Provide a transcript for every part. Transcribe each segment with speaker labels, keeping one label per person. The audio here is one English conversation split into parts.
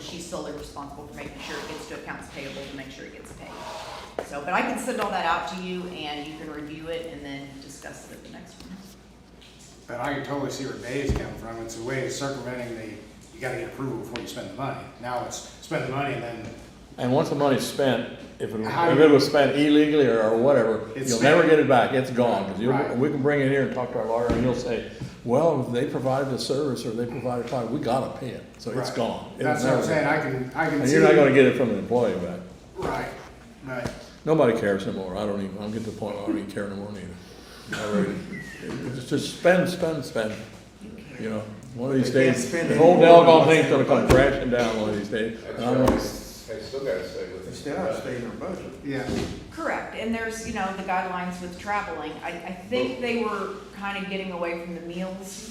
Speaker 1: she's solely responsible for making sure it gets to accounts payable to make sure it gets paid. So, but I can send all that out to you and you can review it and then discuss it at the next one.
Speaker 2: But I can totally see where Bay's coming from. It's a way of circumventing the, you gotta get approval before you spend the money. Now it's spend the money and then
Speaker 3: And once the money's spent, if it,
Speaker 2: How
Speaker 3: if it was spent illegally or, or whatever,
Speaker 2: It's
Speaker 3: you'll never
Speaker 2: spent.
Speaker 3: get it back, it's gone. 'Cause you'll-
Speaker 2: Right.
Speaker 3: we can bring it here and talk to our lawyer and he'll say, well, they provided a service or they provided a product, we gotta pay it, so it's
Speaker 2: Right.
Speaker 3: gone. It'll
Speaker 2: That's what I'm
Speaker 3: never-
Speaker 2: saying, I can, I can
Speaker 3: And
Speaker 2: see.
Speaker 3: you're not gonna get it from an employee back.
Speaker 2: Right, but,
Speaker 3: Nobody cares anymore, I don't even, I'm getting to the point, where I don't even care anymore either. I really- it's Just spend, spend, spend, you know, one of these
Speaker 4: They can't
Speaker 3: days,
Speaker 4: spend
Speaker 3: the whole
Speaker 4: anymore.
Speaker 3: doggone thing's gonna come crashing down one of these days. And I'm gonna-
Speaker 5: They still gotta stay with
Speaker 4: They
Speaker 5: it.
Speaker 4: still have to stay in their budget.
Speaker 2: yeah,
Speaker 1: Correct, and there's, you know, the guidelines with traveling, I, I think they were kind of getting away from the meals.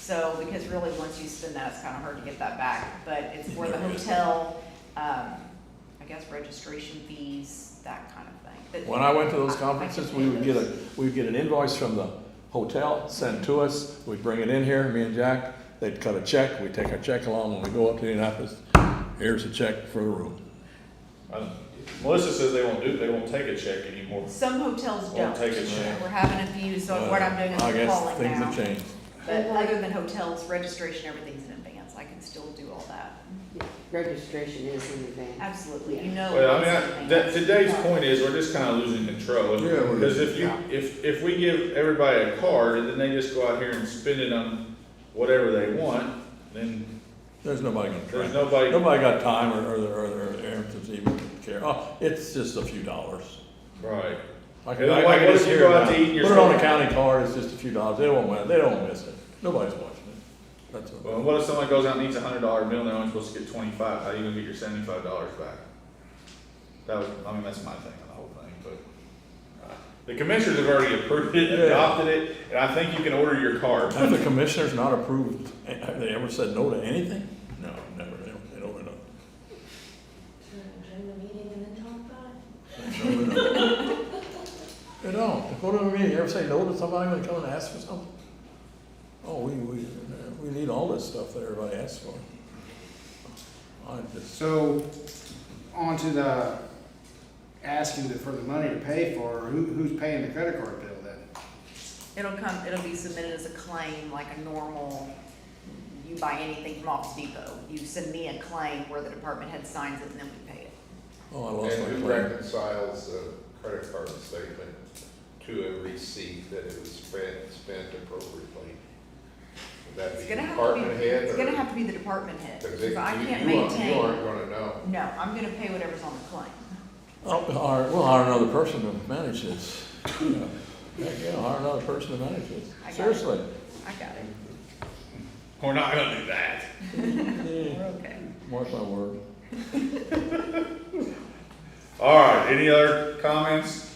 Speaker 1: So, because really, once you spend that, it's kind of hard to get that back, but it's for the hotel, um, I guess registration fees, that kind of thing. But-
Speaker 3: When I went to those
Speaker 1: I- I can
Speaker 3: conferences,
Speaker 1: pay
Speaker 3: we would get
Speaker 1: those.
Speaker 3: a, we'd get an invoice from the hotel, sent to us, we'd bring it in here, me and Jack, they'd cut a check, we'd take our check along, when we go up to Indianapolis, here's a check for the room.
Speaker 6: I- Uh, Melissa says they won't do, they won't take a check anymore.
Speaker 1: Some hotels
Speaker 6: Or
Speaker 1: don't,
Speaker 6: take a check.
Speaker 1: we're having a few, so what I'm doing is
Speaker 3: Uh, I
Speaker 1: I'm
Speaker 3: guess
Speaker 1: calling
Speaker 3: Things have
Speaker 1: now.
Speaker 3: changed.
Speaker 1: But other than hotels, registration, everything's in advance, I can still do all that,
Speaker 7: Registration is in advance.
Speaker 1: absolutely, you know.
Speaker 6: Well, I
Speaker 1: it's
Speaker 6: mean, I-
Speaker 1: something
Speaker 6: that,
Speaker 1: that's-
Speaker 6: today's point is, we're just kinda losing control.
Speaker 3: Yeah, we're-
Speaker 6: Because if you,
Speaker 2: yeah.
Speaker 6: if, if we give everybody a card, and then they just go out here and spend it on whatever they want, then
Speaker 3: There's nobody gonna try.
Speaker 6: there's nobody.
Speaker 3: Nobody got time or, or, the- or, the- or the errands to even care. Oh, it's just a few dollars.
Speaker 6: Right.
Speaker 3: I
Speaker 6: And
Speaker 3: can,
Speaker 6: then
Speaker 3: I
Speaker 6: what-
Speaker 3: can
Speaker 6: what
Speaker 3: just
Speaker 6: if you
Speaker 3: hear it
Speaker 6: go out
Speaker 3: now.
Speaker 6: to eat and you're
Speaker 3: Put it on a
Speaker 6: spending-
Speaker 3: county card, it's just a few dollars. They won't, mind- they don't miss it. Nobody's watching it. That's
Speaker 6: Well,
Speaker 3: all.
Speaker 6: what if someone goes out and eats a hundred dollar meal, and they're only supposed to get twenty-five, how you gonna get your seventy-five dollars back? That was, I mean, that's my thing on the whole thing, but, uh, the commissioners have already approved it,
Speaker 3: Yeah.
Speaker 6: adopted it, and I think you can order your card.
Speaker 3: Have the commissioners not approved, have they ever said no to anything? No, never, they don't, they don't, they don't.
Speaker 8: During the meeting and then talk about it.
Speaker 3: They don't. Go to a meeting, you ever say no to somebody when they come and ask for something? Oh, we, we, we need all this stuff that everybody asks for. I just,
Speaker 2: so on to the asking the- for the money to pay for, who, who's paying the credit card bill then?
Speaker 1: It'll come, it'll be submitted as a claim, like a normal, you buy anything from Office Depot, you send me a claim where the department head signs it and then we pay it.
Speaker 3: oh, I lost my
Speaker 5: And who
Speaker 3: claim.
Speaker 5: reconciles the credit card statement to a receipt that it was spent, spent appropriately? Would that
Speaker 1: It's
Speaker 5: be
Speaker 1: gonna have to
Speaker 5: department
Speaker 1: be,
Speaker 5: head or?
Speaker 1: it's gonna have to be the department head,
Speaker 5: 'cause
Speaker 1: because
Speaker 5: it-
Speaker 1: I
Speaker 5: you-
Speaker 1: can't
Speaker 5: you aren't- You
Speaker 1: maintain,
Speaker 5: aren't gonna know.
Speaker 1: no, I'm gonna pay whatever's on the claim.
Speaker 3: Oh, we'll hire, we'll hire another person to manage this. Heck, yeah, hire another person to manage
Speaker 1: I got
Speaker 3: this.
Speaker 1: it.
Speaker 3: Seriously.
Speaker 1: I got it,
Speaker 6: We're not gonna do that.
Speaker 3: Yeah,
Speaker 1: we're okay.
Speaker 3: Mark my word.
Speaker 6: All right, any other comments?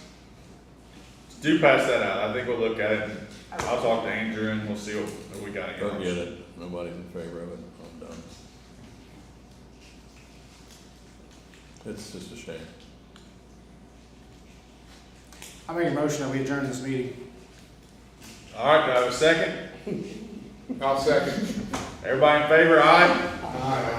Speaker 6: Do pass that out, I think we'll look at it, and I'll talk to Andrew and we'll see what, what we got.
Speaker 3: Don't get it. Nobody's in favor of it. I'm done. It's just a shame.
Speaker 2: I make a motion that we adjourn this meeting.
Speaker 6: All right, do I have a second?
Speaker 5: I'll second.
Speaker 6: Everybody in favor, aye?
Speaker 2: Aye.